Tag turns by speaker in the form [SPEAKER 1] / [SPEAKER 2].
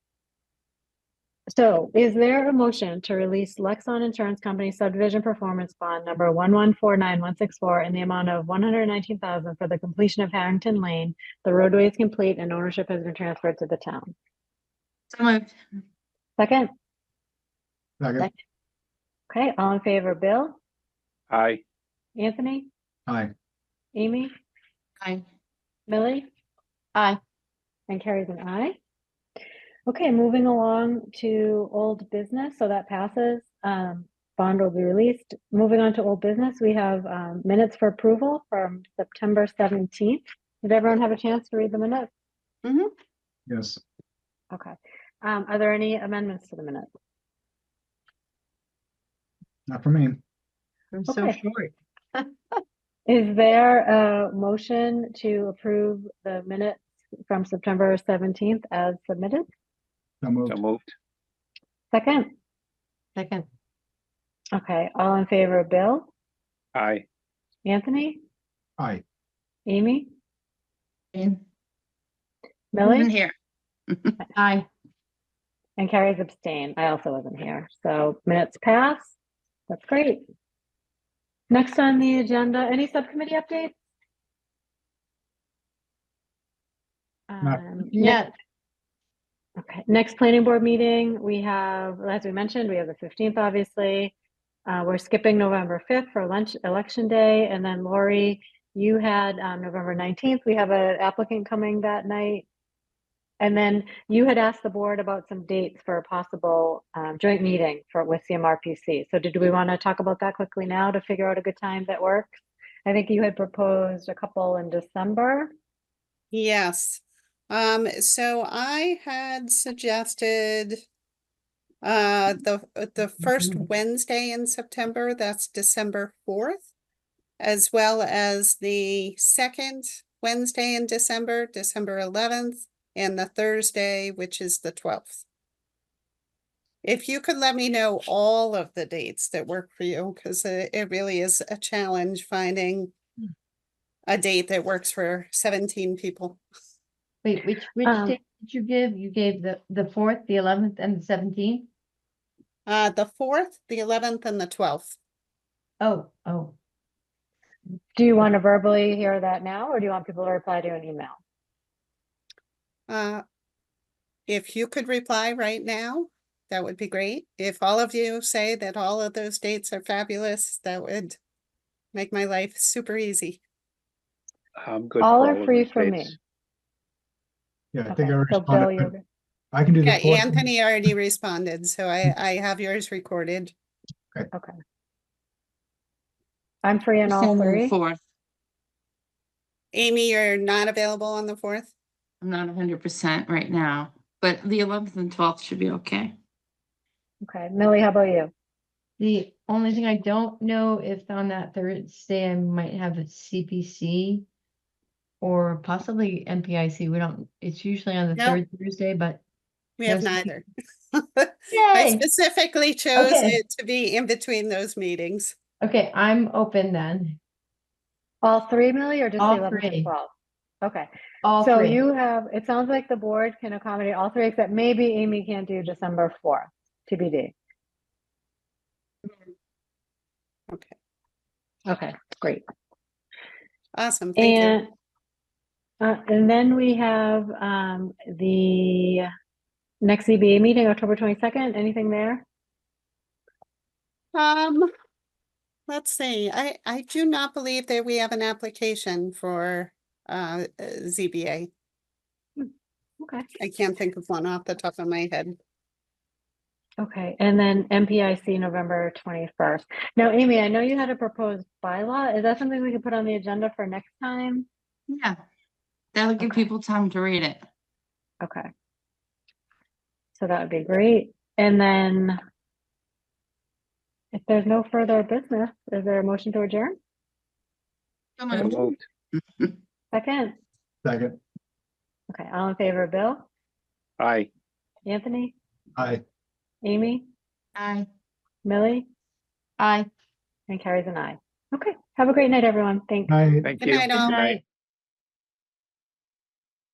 [SPEAKER 1] So is there a motion to release Lexon Insurance Company subdivision performance bond number one one four nine one six four in the amount of one hundred nineteen thousand for the completion of Harrington Lane? The roadway is complete and ownership has been transferred to the town.
[SPEAKER 2] So moved.
[SPEAKER 1] Second,
[SPEAKER 3] Second.
[SPEAKER 1] okay, all in favor, Bill,
[SPEAKER 4] Aye.
[SPEAKER 1] Anthony,
[SPEAKER 3] Aye.
[SPEAKER 1] Amy,
[SPEAKER 2] Aye.
[SPEAKER 1] Millie?
[SPEAKER 2] Aye.
[SPEAKER 1] And carries an aye. Okay, moving along to old business, so that passes. Um, bond will be released. Moving on to old business, we have, um, minutes for approval from September seventeenth. Did everyone have a chance to read the minutes?
[SPEAKER 3] Yes.
[SPEAKER 1] Okay. Um, are there any amendments to the minutes?
[SPEAKER 3] Not for me.
[SPEAKER 2] I'm so
[SPEAKER 1] Okay.
[SPEAKER 2] short.
[SPEAKER 1] Is there a motion to approve the minutes from September seventeenth as submitted?
[SPEAKER 3] So moved.
[SPEAKER 4] So moved.
[SPEAKER 1] Second?
[SPEAKER 2] Second.
[SPEAKER 1] Okay, all in favor, Bill,
[SPEAKER 4] Aye.
[SPEAKER 1] Anthony,
[SPEAKER 3] Aye.
[SPEAKER 1] Amy,
[SPEAKER 2] Jane?
[SPEAKER 1] Millie?
[SPEAKER 5] Mm-hmm.
[SPEAKER 2] Wasn't Here. Aye.
[SPEAKER 1] And Carrie's abstain. I also wasn't here. So minutes pass. That's great. Next on the agenda, any subcommittee updates?
[SPEAKER 3] Not-
[SPEAKER 1] Um,
[SPEAKER 2] Yeah.
[SPEAKER 1] Okay, next planning board meeting, we have, as we mentioned, we have the fifteenth, obviously. Uh, we're skipping November fifth for lunch, election day, and then Lori, you had, um, November nineteenth, we have an applicant coming that night. And then you had asked the board about some dates for a possible, um, joint meeting for, with CMRPC. So did we want to talk about that quickly now to figure out a good time that works? I think you had proposed a couple in December.
[SPEAKER 6] Yes, um, so I had suggested uh, the, uh, the first Wednesday in September, that's December fourth, as well as the second Wednesday in December, December eleventh, and the Thursday, which is the twelfth. If you could let me know all of the dates that work for you, because it, it really is a challenge finding a date that works for seventeen people.
[SPEAKER 5] Wait, which, which
[SPEAKER 1] Um,
[SPEAKER 5] date did you give? You gave the, the fourth, the eleventh and the seventeenth?
[SPEAKER 6] Uh, the fourth, the eleventh and the twelfth.
[SPEAKER 5] Oh, oh,
[SPEAKER 1] Do you want to verbally hear that now, or do you want people to reply to an email?
[SPEAKER 6] Uh, if you could reply right now, that would be great. If all of you say that all of those dates are fabulous, that would make my life super easy.
[SPEAKER 4] I'm good.
[SPEAKER 1] All
[SPEAKER 4] for
[SPEAKER 1] are
[SPEAKER 4] of
[SPEAKER 1] free
[SPEAKER 4] these
[SPEAKER 1] for me.
[SPEAKER 4] dates.
[SPEAKER 3] Yeah, I
[SPEAKER 1] Okay,
[SPEAKER 3] think I
[SPEAKER 1] so Bill,
[SPEAKER 3] responded.
[SPEAKER 1] you're
[SPEAKER 3] but I can do the
[SPEAKER 6] Yeah,
[SPEAKER 3] fourth.
[SPEAKER 6] Anthony already responded, so I, I have yours recorded.
[SPEAKER 1] okay. I'm free on all
[SPEAKER 2] December
[SPEAKER 1] three.
[SPEAKER 2] Fourth.
[SPEAKER 6] Amy, you're not available on the fourth?
[SPEAKER 2] I'm not hundred percent right now, but the eleventh and twelfth should be okay.
[SPEAKER 1] Okay, Millie, how about you?
[SPEAKER 5] the only thing I don't know if on that Thursday I might have a CPC or possibly MPIC. We don't, it's usually on the
[SPEAKER 6] No.
[SPEAKER 5] third Thursday, but
[SPEAKER 6] We have
[SPEAKER 5] Yes,
[SPEAKER 6] neither. I
[SPEAKER 5] yay!
[SPEAKER 6] specifically chose
[SPEAKER 5] Okay.
[SPEAKER 6] it to be in between those meetings.
[SPEAKER 5] Okay, I'm open then.
[SPEAKER 1] All three, Millie, or just the
[SPEAKER 5] All
[SPEAKER 1] 11th and
[SPEAKER 5] three.
[SPEAKER 1] 12th? Okay,
[SPEAKER 5] All
[SPEAKER 1] so
[SPEAKER 5] three.
[SPEAKER 1] you have, it sounds like the board can accommodate all three, except maybe Amy can't do December 4th, TBD.
[SPEAKER 6] Okay,
[SPEAKER 1] Okay, great.
[SPEAKER 6] awesome. Thank you.
[SPEAKER 1] And, uh, and then we have, um, the next ZBA meeting, October 22nd. Anything there?
[SPEAKER 6] Um, let's see, I, I do not believe that we have an application for, uh, uh, ZBA.
[SPEAKER 1] Okay.
[SPEAKER 6] I can't think of one off the top of my head.
[SPEAKER 1] Okay, and then MPIC November 21st. Now, Amy, I know you had a proposed bylaw. Is that something we could put on the agenda for next time?
[SPEAKER 2] Yeah. That'll give
[SPEAKER 1] Okay.
[SPEAKER 2] people time to read it.
[SPEAKER 1] Okay. So that would be great. And then if there's no further business, is there a motion to adjourn?
[SPEAKER 2] So
[SPEAKER 4] So
[SPEAKER 2] moved.
[SPEAKER 4] moved.
[SPEAKER 1] Second?
[SPEAKER 3] Second.
[SPEAKER 1] Okay, all in favor, Bill,
[SPEAKER 4] Aye.
[SPEAKER 1] Anthony,
[SPEAKER 3] Aye.
[SPEAKER 1] Amy,
[SPEAKER 2] Aye.
[SPEAKER 1] Millie,
[SPEAKER 5] Aye.
[SPEAKER 1] and Carrie's an aye. Okay, have a great night, everyone. Thanks.
[SPEAKER 3] Aye.
[SPEAKER 4] Thank
[SPEAKER 6] Good
[SPEAKER 4] you.
[SPEAKER 6] night, all.
[SPEAKER 5] Night.